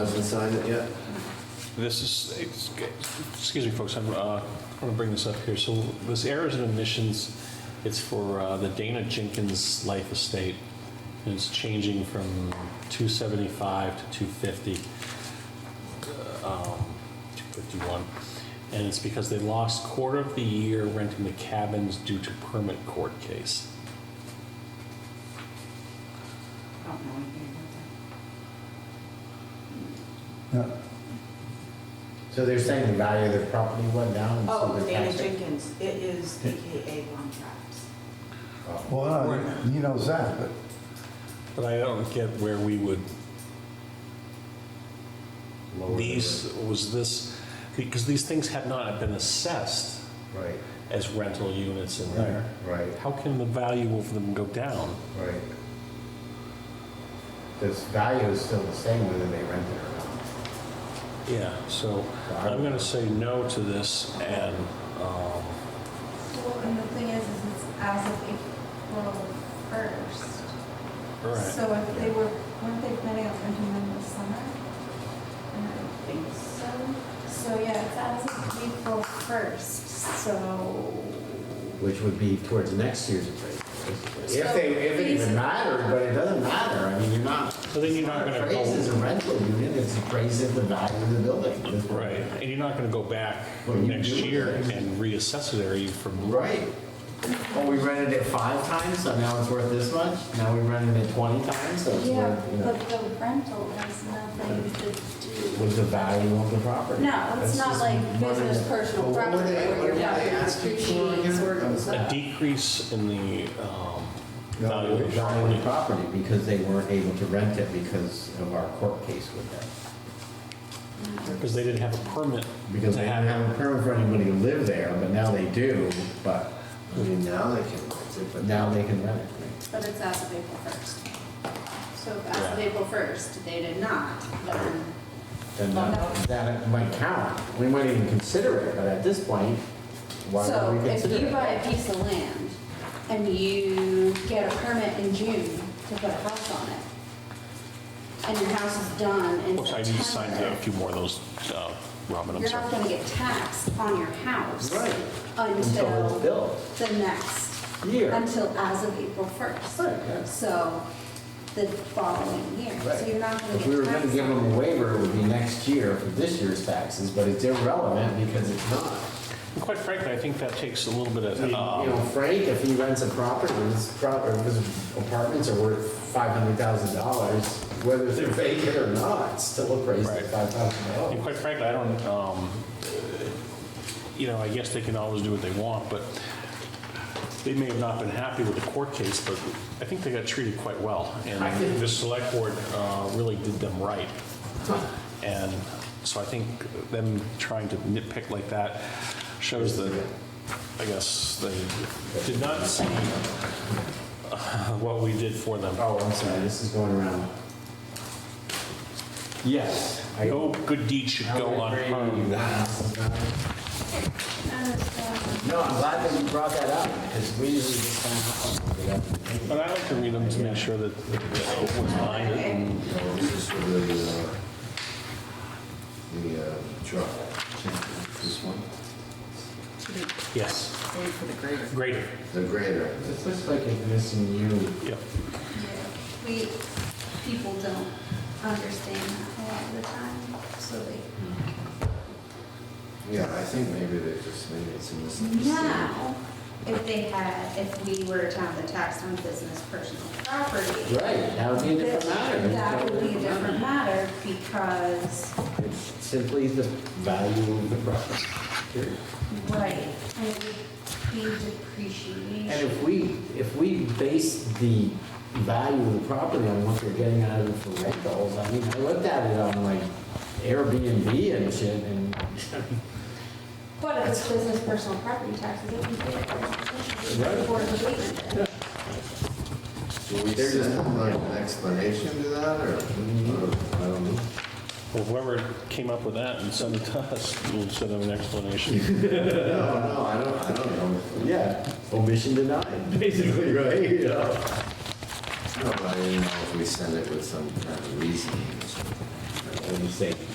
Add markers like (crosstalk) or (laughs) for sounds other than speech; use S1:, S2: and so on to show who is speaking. S1: Hasn't signed it yet?
S2: This is, it's- excuse me, folks, I'm, uh, I want to bring this up here. So this errors and omissions, it's for uh, the Dana Jenkins Life Estate. And It's changing from 275 to 250, um, 251. And it's because they lost quarter of the year renting the cabins due to permit court case.
S3: I don't know anything about
S4: So they're saying the value of their property went down? and so
S3: that. Oh,
S4: their
S3: Dana
S4: tax-
S3: Jenkins, it is AKA One Traps.
S4: Oh,
S5: Well, uh, he knows that, but
S2: But I don't get where we would
S4: lower than-
S2: These, was this, because these things had not been assessed
S4: Right,
S2: as rental units in there.
S4: right,
S2: How can the value of them go down?
S4: right. This value is still the same whether they rent it or not.
S2: Yeah, so I'm going to say no to this and, um,
S6: Well, and the thing is, is it's as of April first.
S2: all right.
S6: So if they were, weren't they planning on renting them this summer? And I think so. So yeah, it's as of April first, so.
S4: Which would be towards next year's appraisal. basically. If they, if it
S6: So,
S4: even mattered, but it doesn't matter, I mean, you're not.
S2: So then you're not going to
S4: Appraised as
S2: go,
S4: a rental unit, it's appraised at the value of the building.
S2: right, and you're not going to go back
S4: What do you
S2: next
S4: do with
S2: year
S4: this?
S2: and reassess it, are you from?
S4: Right. Well, we rented it five times, so now it's worth this much. Now we rented it 20 times, so it's
S6: Yeah,
S4: worth, you know.
S6: but the rental has nothing to do.
S4: was the value of the property.
S6: No, it's
S4: That's
S6: not
S4: just
S6: like
S4: money.
S6: business personal
S4: Well, what were
S6: property
S4: they-
S6: where
S4: what
S6: your
S4: were they
S6: property
S4: asking for again?
S6: depreciates or goes
S2: A
S6: up.
S2: decrease in the um,
S4: No, the value of the
S2: valuation.
S4: property because they weren't able to rent it because of our court case with them.
S2: Because they didn't have a permit
S4: Because
S2: to
S4: they didn't have a
S2: have,
S4: permit for anybody to live there, but now they do, but
S1: I mean, now they can rent it, but
S4: now they can rent it.
S7: But it's as of April 1st. So if as of April 1st, they did not, then
S4: Then
S6: Oh,
S4: that- that might count. We might even consider it, but at this point, why
S7: So
S4: would we
S7: if
S4: consider
S7: you buy
S4: it?
S7: a piece of land and you get a permit in June to put a house on it, and your house is done in
S2: oops, I need to sign a
S7: September,
S2: few more of those, uh, Robin, I'm
S7: you're
S2: sorry.
S7: not gonna get taxed on your house
S4: Right. Until it's
S7: until
S4: built.
S7: the next,
S4: Year.
S7: until as of April 1st.
S4: Right, yeah.
S7: So the following year, so you're not gonna
S4: If we were
S7: get
S4: gonna
S7: taxed.
S4: give
S7: on
S4: them a waiver, it would be next year for this year's taxes, but it's irrelevant because it's not.
S2: And Quite frankly, I think that takes a little bit
S4: You
S2: of,
S4: know,
S2: um,
S4: Frank, if he rents a property, his prop- or his apartments are worth five hundred thousand dollars, whether they're vacant or not, it's still appraised
S2: Right.
S4: at five thousand
S2: and
S4: dollars.
S2: quite frankly, I don't, um, you know, I guess they can always do what they want, but they may have not been happy with the court case, but I think they got treated quite well. And
S4: I think-
S2: the select board uh, really did them right. And so I think them trying to nitpick like that shows that, I guess, they did not see uh, what we did for them.
S4: Oh, I'm sorry, this is going around. Yes. I-
S2: No good deed should
S4: I
S2: go
S4: would agree.
S2: unpunished.
S4: No, I'm glad that you brought that up, because we usually just kind of. hop on it without thinking.
S2: But I like to read them to make sure that that what's behind it. and-
S1: no, this is for the, uh, the uh, truck. This one,
S2: Yes. Greater.
S1: the grader.
S4: This looks like it's missing you.
S2: Yep.
S6: Yeah, We, people don't understand that a lot of the time, so they,
S1: Yeah, I think maybe they just, maybe it's a misunderstanding.
S7: Now, if they had, if we were to have the tax on business personal property.
S4: Right, that would be a different matter.
S7: That would be a different matter because,
S4: It's simply the value of the property. period.
S7: right, and it would be
S4: And
S7: depreciation.
S4: if we, if we base the value of the property on what they're getting out of it for rentals, I mean, I looked at it on like Airbnb and shit, and
S7: But if it's business personal property taxes, it would be different.
S4: Right.
S7: Right.
S1: Do we send like an explanation to that, or, or- I don't know.
S2: Well, whoever came up with that and sent it to us, we'll send them an explanation.
S1: No, no, I don't, I don't know.
S4: yeah, omission denied, (laughs) basically, right? You know?
S1: No, but I didn't know if we send it with some kind of reasoning or something. when you say